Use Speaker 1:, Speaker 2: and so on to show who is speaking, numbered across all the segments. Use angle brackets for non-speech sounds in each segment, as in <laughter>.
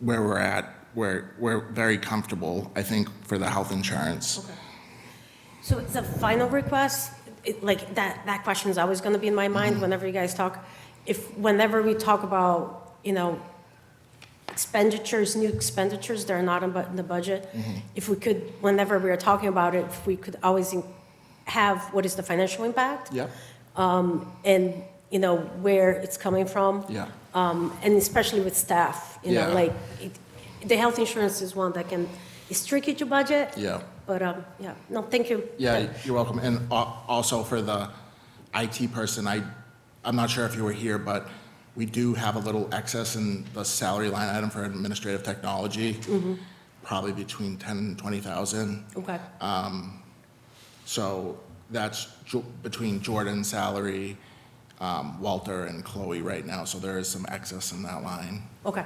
Speaker 1: where we're at, we're, we're very comfortable, I think, for the health insurance.
Speaker 2: So it's a final request, It- like, that, that question's always gonna be in my
Speaker 1: Mm-hmm.
Speaker 2: mind whenever you guys talk. If, whenever we talk about, you know, expenditures, new expenditures, they're not in bu- in the budget.
Speaker 1: Mm-hmm.
Speaker 2: If we could, whenever we are talking about it, if we could always in- have what is the financial impact?
Speaker 1: Yep.
Speaker 2: And, you know, where it's coming from.
Speaker 1: Yeah.
Speaker 2: Um, and especially with staff, you know,
Speaker 1: Yeah.
Speaker 2: like, it, the health insurance is one that can, it's tricky to budget.
Speaker 1: Yeah.
Speaker 2: But, um, yeah, no, thank you.
Speaker 1: Yeah, you're welcome. And al- also for the IT person, I, I'm not sure if you were here, but we do have a little excess in the salary line item for administrative technology, probably between 10 and 20,000.
Speaker 2: Okay.
Speaker 1: So that's Jo- between Jordan's salary, um, Walter and Chloe right now, so there is some excess in that line.
Speaker 2: Okay,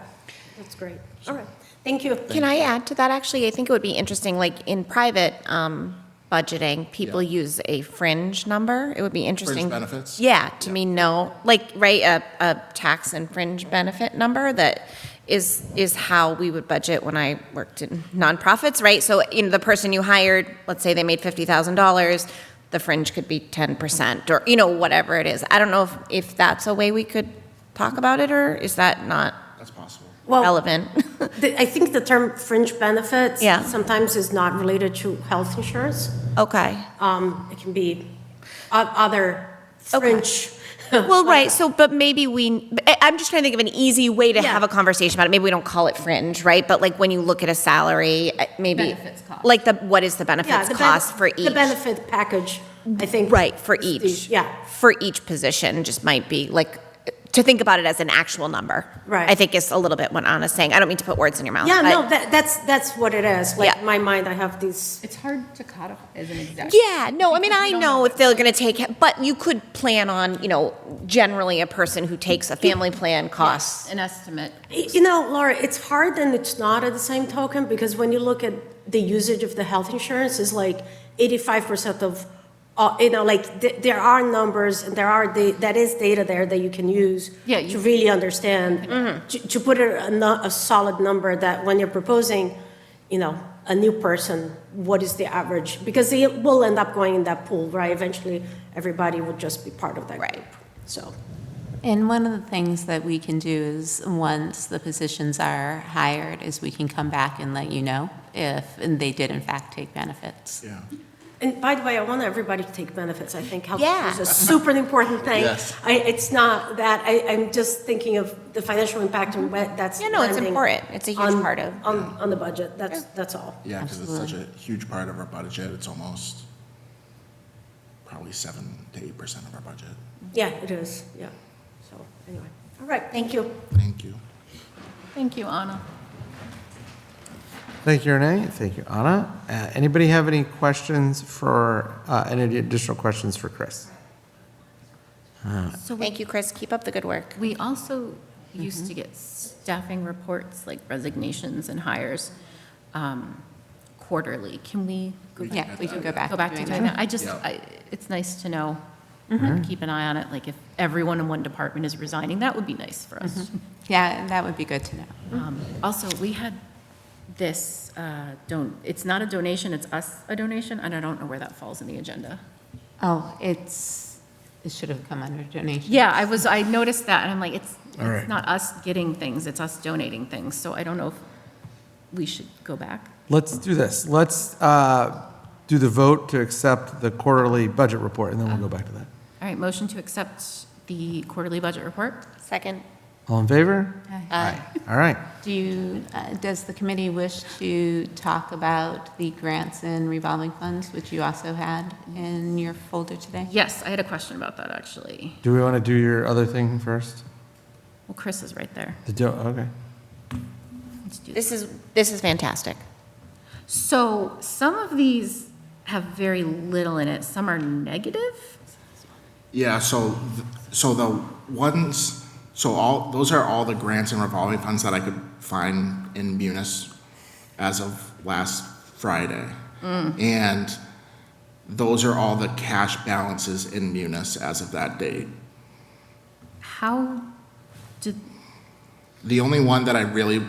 Speaker 2: that's great. All right, thank you.
Speaker 3: Can I add to that, actually? I think it would be interesting, like, in private um, budgeting, people
Speaker 1: Yeah.
Speaker 3: use a fringe number. It would be interesting.
Speaker 1: benefits?
Speaker 3: Yeah, to me, no, like, right, a, a tax and fringe benefit number that is, is how we would budget when I worked in nonprofits, right? So, you know, the person you hired, let's say they made $50,000, the fringe could be 10%, or, you know, whatever it is. I don't know if, if that's a way we could talk about it, or is that not
Speaker 1: That's possible.
Speaker 2: Well,
Speaker 3: relevant? <laughs>
Speaker 2: the- I think the term fringe benefits
Speaker 3: Yeah.
Speaker 2: sometimes is not related to health insurance.
Speaker 3: Okay.
Speaker 2: Um, It can be o- other
Speaker 3: Okay.
Speaker 2: fringe.
Speaker 3: Well, right. So, but maybe we, I- I'm just trying to think of an easy way to
Speaker 2: Yeah.
Speaker 3: have a conversation about it. Maybe we don't call it fringe, right? But like when you look at a salary, uh, maybe.
Speaker 4: Benefits cost.
Speaker 3: Like the, what is the
Speaker 2: Yeah,
Speaker 3: benefits
Speaker 2: the ben-
Speaker 3: cost for
Speaker 2: The
Speaker 3: each?
Speaker 2: benefit package, I think.
Speaker 3: Right, for
Speaker 2: is the-
Speaker 3: each.
Speaker 2: Yeah,
Speaker 3: For each position, just might be like, to think about it as an actual number.
Speaker 2: Right.
Speaker 3: I think is a little bit what Anna's saying. I don't mean to put words in your mouth.
Speaker 2: yeah,
Speaker 3: Uh, but-
Speaker 2: no, that- that's, that's what it is. Like,
Speaker 3: Yeah.
Speaker 2: in my mind, I have these,
Speaker 4: It's hard to codify as an exact.
Speaker 3: Yeah, no, I mean,
Speaker 4: Because
Speaker 3: I
Speaker 4: you don't
Speaker 3: know
Speaker 4: know
Speaker 3: if they're gonna take, but you could plan on, you know, generally a person who takes a family plan costs
Speaker 4: An estimate.
Speaker 2: you know, Laura, it's hard and it's not at the same token, because when you look at the usage of the health insurance, is like 85% of, uh, you know, like, th- there are numbers, and there are, da- that is data there that you can use
Speaker 4: Yeah,
Speaker 2: to
Speaker 4: you- Mm-hmm.
Speaker 2: really understand, to to put a- a nu- a solid number that when you're proposing, you know, a new person, what is the average? Because they will end up going in that pool, right? Eventually, everybody would just be part of that
Speaker 3: Right.
Speaker 2: group, so.
Speaker 5: And one of the things that we can do is, once the positions are hired, is we can come back and let you know if they did in fact take benefits.
Speaker 1: Yeah.
Speaker 2: And by the way, I want everybody to take benefits. I think health
Speaker 3: Yeah.
Speaker 2: is a super important thing.
Speaker 1: Yes.
Speaker 2: I, it's not that, I, I'm just thinking of the financial impact and what that's.
Speaker 3: Mm-hmm. Yeah, no, it's
Speaker 2: landing
Speaker 3: important. It's a huge
Speaker 2: on-
Speaker 3: part of-
Speaker 2: On, on the budget, that's, that's all.
Speaker 1: Yeah, because it's such a huge part of our budget, it's almost probably seven to eight percent of our budget.
Speaker 2: Yeah, it is, yeah. So, anyway, all right, thank you.
Speaker 1: Thank you.
Speaker 4: Thank you, Anna.
Speaker 6: Thank you, Renee. Thank you, Anna. Uh, Anybody have any questions for, uh, any additional questions for Chris?
Speaker 3: Thank you, Chris. Keep up the good work.
Speaker 4: We also used
Speaker 5: Mm-hmm.
Speaker 4: to get staffing reports, like resignations and hires, um, quarterly. Can we go back?
Speaker 5: Yeah, we can go back
Speaker 4: Go
Speaker 5: to
Speaker 4: back to
Speaker 5: doing Mm-hmm.
Speaker 4: doing that? I just,
Speaker 1: Yeah.
Speaker 4: I, it's nice to know, and keep an eye on it, like if everyone in one department is resigning, that would be nice for us.
Speaker 5: Yeah, that would be good to know.
Speaker 4: Um, Also, we had this, uh, don't, it's not a donation, it's us a donation, and I don't know where that falls in the agenda.
Speaker 5: Oh, it's, it should have come under donation.
Speaker 4: Yeah, I was, I noticed that, and I'm like, it's,
Speaker 6: All right.
Speaker 4: it's not us getting things, it's us donating things, so I don't know if we should go back.
Speaker 6: Let's do this. Let's uh, do the vote to accept the quarterly budget report, and then we'll go back to that.
Speaker 4: All right, motion to accept the quarterly budget report?
Speaker 3: Second.
Speaker 6: All in favor?
Speaker 5: Uh,
Speaker 6: All right.
Speaker 5: Do you, uh, does the committee wish to talk about the grants and revolving funds, which you also had in your folder today?
Speaker 4: Yes, I had a question about that, actually.
Speaker 6: Do we want to do your other thing first?
Speaker 4: Well, Chris is right there.
Speaker 6: The do- Okay.
Speaker 4: Let's do
Speaker 3: This is, this is fantastic.
Speaker 4: So some of these have very little in it, some are negative?
Speaker 1: Yeah, so, th- so the ones, so all, those are all the grants and revolving funds that I could find in Munis as of last Friday. Mm. And those are all the cash balances in Munis as of that date.
Speaker 4: How did
Speaker 1: The only one that I really